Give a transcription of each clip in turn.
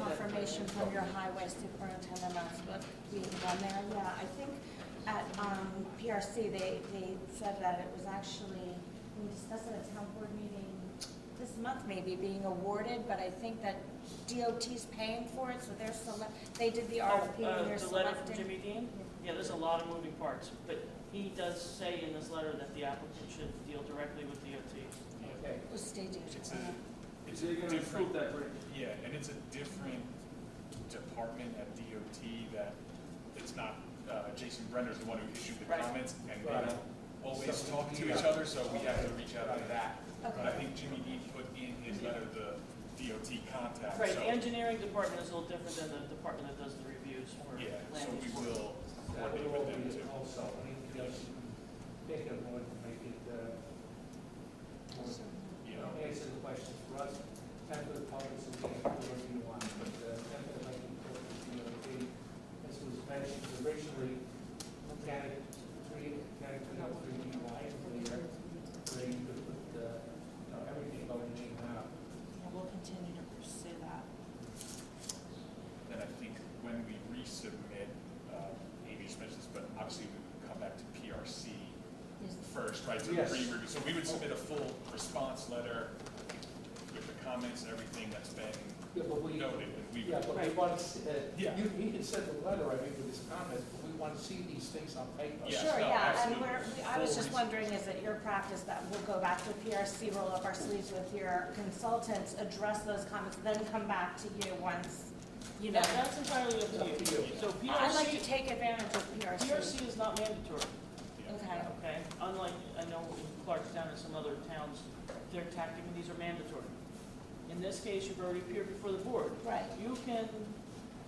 question from your highway superintendent last week, week on there, yeah, I think at, um, PRC, they, they said that it was actually, we discussed at a town board meeting this month maybe, being awarded, but I think that DOT's paying for it, so they're select, they did the RFP, Oh, uh, and they're The letter from selecting. Jimmy Dean? Yeah, there's a lot of moving parts, but he does say in this letter that the applicant should deal directly with DOT. Okay. It was state It's DOT. a, it's Is he a gonna different, approve that grant? yeah, and it's a different department at DOT that, it's not, uh, Jason Brenner's the one who issued the Right. comments, and they Right. don't always So- uh, talk to each yeah. other, so we have to reach out to that. But I Okay, think Jimmy Dean put in his Mm-hmm. letter the DOT contact, Right, so, the engineering department is a little different than the department that does the reviews for yeah, so land we use. will That coordinate would all with them be too. also, I mean, because they can avoid, make it, uh, Yeah, more- answer the question for us, and for the public, so we can do what we want, but, uh, definitely like important to the DOT. As was mentioned originally, mechanic three, mechanic two, not three, you know, I believe, where you could put, uh, you know, everything about it in now. and we'll continue to pursue that. then I think when we resubmit, uh, Amy just mentioned this, but obviously we would come back to PRC Is- first, right, to the Yes. pre-review. So we would submit a full response letter with the comments, everything that's been Yeah, but we, noted, and we Yeah, would, but we want to, see- uh, Yeah. you, he can send a letter, I mean, with his comments, but we want to see these things on paper. Yes, Sure, no, yeah, and absolutely. we're, we- I was just Full reason. wondering, is it your practice that we'll go back to PRC, roll up our sleeves with your consultants, address those comments, then come back to you once, you know? That- That's entirely up to you. So I like to PRC, take advantage of PRC. PRC is not mandatory. yeah. Okay, Okay, unlike, I know in Clarkstown and some other towns, their tactic, and these are mandatory. In this case, you've already appeared before the board. right. You can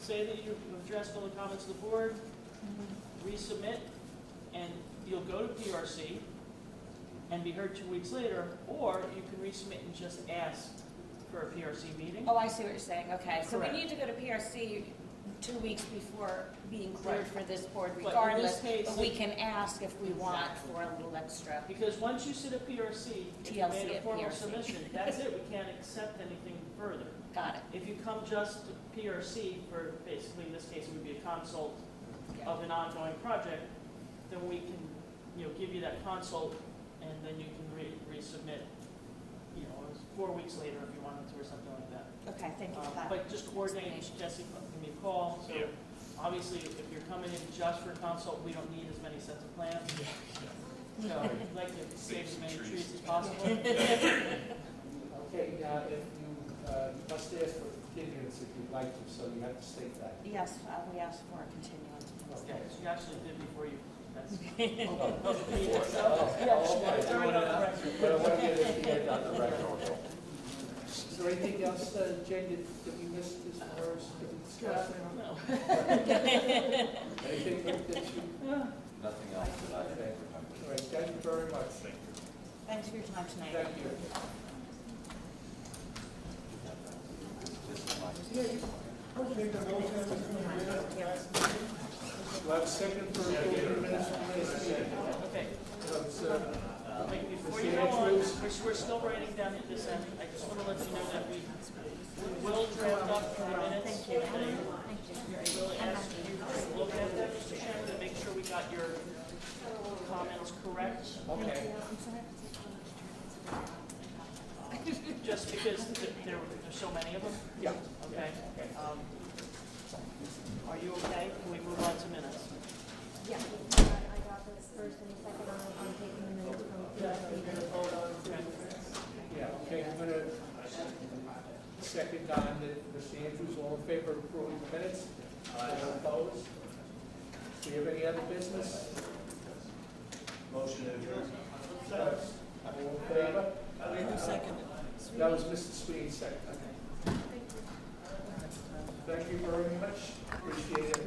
say that you've addressed all the comments of the board, Mm-hmm. resubmit, and you'll go to PRC and be heard two weeks later, or you can resubmit and just ask for a PRC meeting. Oh, I see what you're saying, okay. So we Correct. need to go to PRC two weeks before being cleared for Right. this board But in this regardless, case, but we can ask if we want Exactly. for a little extra. Because once you sit at PRC, if you TLC made a at formal PRC. submission, that's it, we can't accept anything further. Got it, If you come just to PRC for, basically in this case, it would be a consult yeah, of an ongoing project, then we can, you know, give you that consult, and then you can re- resubmit, you know, it's four weeks later if you wanted to, or something like that. okay, thank you Um, for that. But just coordinate, explanation. Jesse, give me a call, so, Yeah. obviously, if you're coming in just for consult, we don't need as many sets of plans. So, I'd like to save as some many trees. trees as possible. Okay, now, if you, uh, you must ask for continuance if you'd like to, so you have to state that. Yes, uh, we asked for a continuance. Okay, so you actually did before you, that's. Hold on. Oh, you did, so- Oh, yeah, oh, sure, okay. it's already on the record. But I want to get it cleared on the record. Is there anything else, uh, Jen, that that we missed as far as that we discussed? No. Anything that you, Nothing else that I can Okay. remember. all right, thank you very much. Thank you. Thanks for your time tonight. Thank you. Do I have a second for the minutes from last meeting? Okay, So it's, uh, Like, Before you go on, which we're still writing down at this end, I just want to let you know that we we will draft up the minutes. Thank We will ask you to look at them, Mr. Chairman, to make sure we got your comments correct, Okay. just because th- there were, there's so many of them, Yeah. okay? Um, Are you okay? Can we move on to minutes? Yeah, I I got this first and second on, on taking the minutes from PRC. Yeah, okay, I'm gonna second on that, Mr. Andrews, all in favor of approving the minutes? Aye. Opposed? Do you have any other business? Motion to adjourn. All in favor? That was Mr. Sweeney's second. Thank you very much, appreciate it.